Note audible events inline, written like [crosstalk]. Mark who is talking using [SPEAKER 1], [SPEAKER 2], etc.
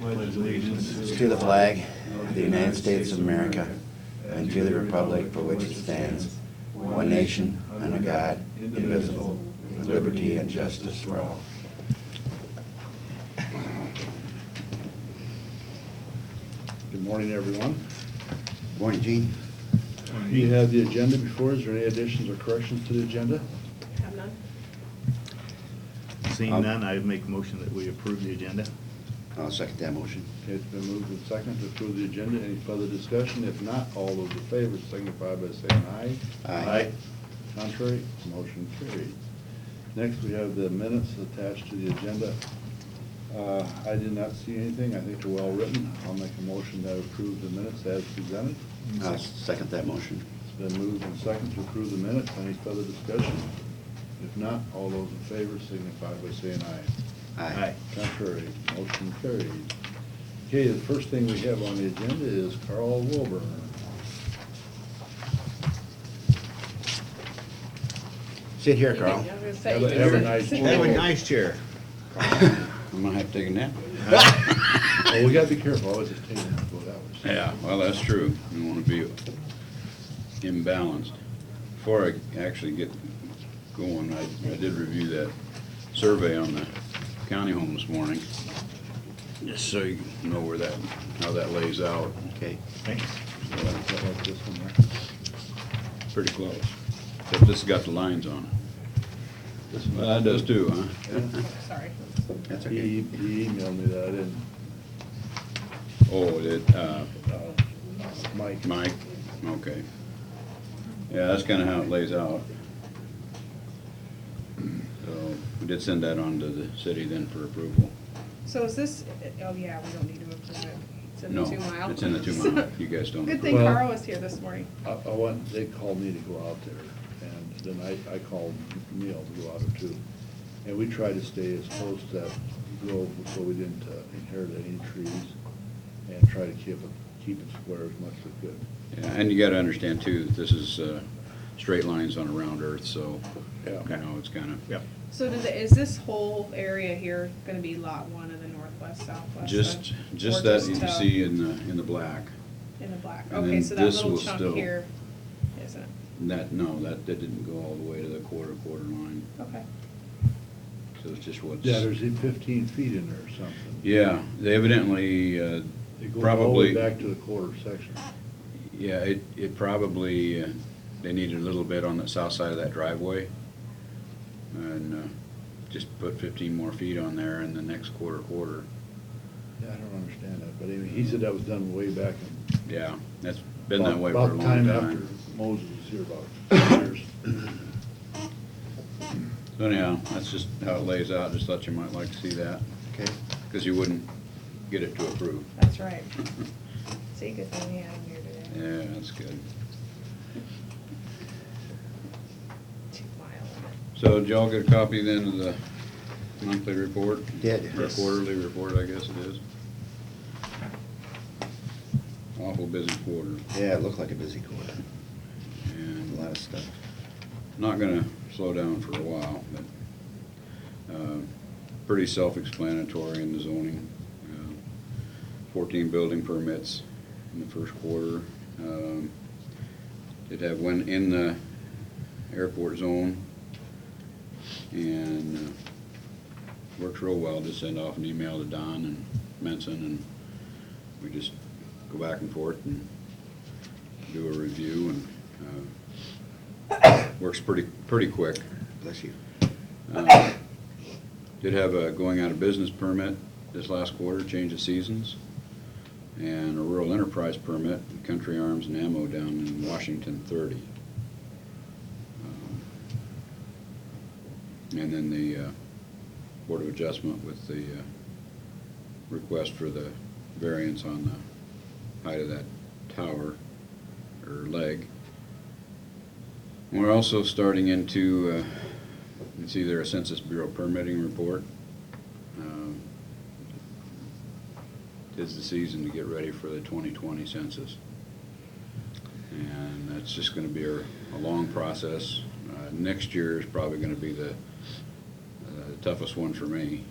[SPEAKER 1] pledge allegiance
[SPEAKER 2] To the flag of the United States of America and to the republic for which it stands, one nation, under God, indivisible, with liberty and justice for all.
[SPEAKER 3] Good morning, everyone.
[SPEAKER 2] Morning, Gene.
[SPEAKER 3] You have the agenda before. Is there any additions or corrections to the agenda?
[SPEAKER 4] Have none?
[SPEAKER 1] Seeing none, I make motion that we approve the agenda.
[SPEAKER 2] I'll second that motion.
[SPEAKER 3] Okay, It's been moved and seconded to approve the agenda. Any further discussion? If not, all those in favor signify by saying aye.
[SPEAKER 2] Aye.
[SPEAKER 3] Contrary, motion carried. Next, we have the minutes attached to the agenda. Uh, I did not see anything. I think they're well-written. I'll make a motion that approve the minutes as presented.
[SPEAKER 2] I'll second that motion.
[SPEAKER 3] It's been moved and seconded to approve the minutes. Any further discussion? If not, all those in favor signify by saying aye.
[SPEAKER 2] Aye.
[SPEAKER 3] Contrary, motion carried. Okay, the first thing we have on the agenda is Carl Wilburn.
[SPEAKER 2] Sit here, Carl.
[SPEAKER 4] I was gonna say,
[SPEAKER 3] Have
[SPEAKER 4] you
[SPEAKER 3] a-
[SPEAKER 4] can
[SPEAKER 3] have a
[SPEAKER 4] sit-
[SPEAKER 3] nice
[SPEAKER 4] sit
[SPEAKER 3] day.
[SPEAKER 4] there.
[SPEAKER 1] nice chair.
[SPEAKER 2] I'm gonna have to take a nap.
[SPEAKER 3] Oh, we gotta be careful, I always just take that for hours.
[SPEAKER 5] Yeah, well, that's true. You want to be imbalanced. Before I actually get going, I, I did review that survey on the county home this morning. Just so you know where that, how that lays out.
[SPEAKER 2] Okay.
[SPEAKER 1] Thanks.
[SPEAKER 3] So I felt like this one there.
[SPEAKER 5] Pretty close. Except this has got the lines on it.
[SPEAKER 3] This one-
[SPEAKER 5] Well, that does too, huh?
[SPEAKER 4] Sorry.
[SPEAKER 2] That's okay.
[SPEAKER 3] He, he emailed me that, I didn't,
[SPEAKER 5] Oh, it, uh,
[SPEAKER 3] Mike,
[SPEAKER 5] Mike, okay. Yeah, that's kinda how it lays out. So, we did send that on to the city then for approval.
[SPEAKER 4] So is this, oh yeah, we don't need to approve it. It's in
[SPEAKER 5] No,
[SPEAKER 4] the two mile.
[SPEAKER 5] it's in the two
[SPEAKER 4] [laughs]
[SPEAKER 5] mile, you guys don't.
[SPEAKER 4] Good thing
[SPEAKER 3] Well-
[SPEAKER 4] Carl was here this morning.
[SPEAKER 3] I, I want, they called me to go out there, and then I, I called Neil to go out there too. And we tried to stay as close to that grove so we didn't uh, inherit any trees, and try to keep it, keep it square as much as we could.
[SPEAKER 5] Yeah, And you gotta understand too, that this is, uh, straight lines on a round earth, so, you
[SPEAKER 3] Yeah.
[SPEAKER 5] know, it's kinda,
[SPEAKER 1] Yep.
[SPEAKER 4] So does it, is this whole area here gonna be lot one of the northwest, southwest?
[SPEAKER 5] just,
[SPEAKER 4] uh,
[SPEAKER 5] just
[SPEAKER 4] or
[SPEAKER 5] that you
[SPEAKER 4] uh,
[SPEAKER 5] see in the, in the black.
[SPEAKER 4] In the black,
[SPEAKER 5] and
[SPEAKER 4] okay,
[SPEAKER 5] then
[SPEAKER 4] so that
[SPEAKER 5] this
[SPEAKER 4] little
[SPEAKER 5] will still-
[SPEAKER 4] chunk here isn't,
[SPEAKER 5] That, no, that, that didn't go all the way to the quarter, quarter line,
[SPEAKER 4] okay.
[SPEAKER 5] so it's just what's.
[SPEAKER 3] Yeah, there's fifteen feet in there or something.
[SPEAKER 5] Yeah, they evidently, uh,
[SPEAKER 3] It goes all the way
[SPEAKER 5] probably.
[SPEAKER 3] back to the quarter section.
[SPEAKER 5] Yeah, it, it probably, uh, they needed a little bit on the south side of that driveway. And uh, just put fifteen more feet on there in the next quarter, quarter.
[SPEAKER 3] Yeah, I don't understand that, but anyway, he said that was done way back in.
[SPEAKER 5] Yeah, that's been that way for a
[SPEAKER 3] about
[SPEAKER 5] long
[SPEAKER 3] the
[SPEAKER 5] time.
[SPEAKER 3] after Moses was here about years.
[SPEAKER 5] So anyhow, that's just how it lays out, just thought you might like to see that,
[SPEAKER 2] Okay.
[SPEAKER 5] because you wouldn't get it to approve. [laughs]
[SPEAKER 4] That's right. See, good thing we had him here today.
[SPEAKER 5] Yeah, that's good.
[SPEAKER 4] Two mile.
[SPEAKER 5] So did y'all get a copy then of the monthly report?
[SPEAKER 2] Did.
[SPEAKER 5] Or quarterly report, I guess it is. Awful busy quarter,
[SPEAKER 2] Yeah, it looked like a busy quarter.
[SPEAKER 5] and
[SPEAKER 2] A lot of stuff.
[SPEAKER 5] not gonna slow down for a while, but, uh, pretty self-explanatory in the zoning. Uh, Fourteen building permits in the first quarter. Um, Did have one in the airport zone. And uh, works real well, just send off an email to Don and Menson, and we just go back and forth and do a review, and, uh, works pretty, pretty quick.
[SPEAKER 2] Bless you.
[SPEAKER 5] Uh, Did have a going out of business permit this last quarter, change of seasons, and a rural enterprise permit, Country Arms and Ammo down in Washington thirty. Um, And then the uh, Board of Adjustment with the uh, request for the variance on the height of that tower or leg. We're also starting into, uh, it's either a Census Bureau permitting report. um, Is the season to get ready for the 2020 census. And that's just going to be a, a long process. Uh, Next year is probably going to be the uh, toughest one for me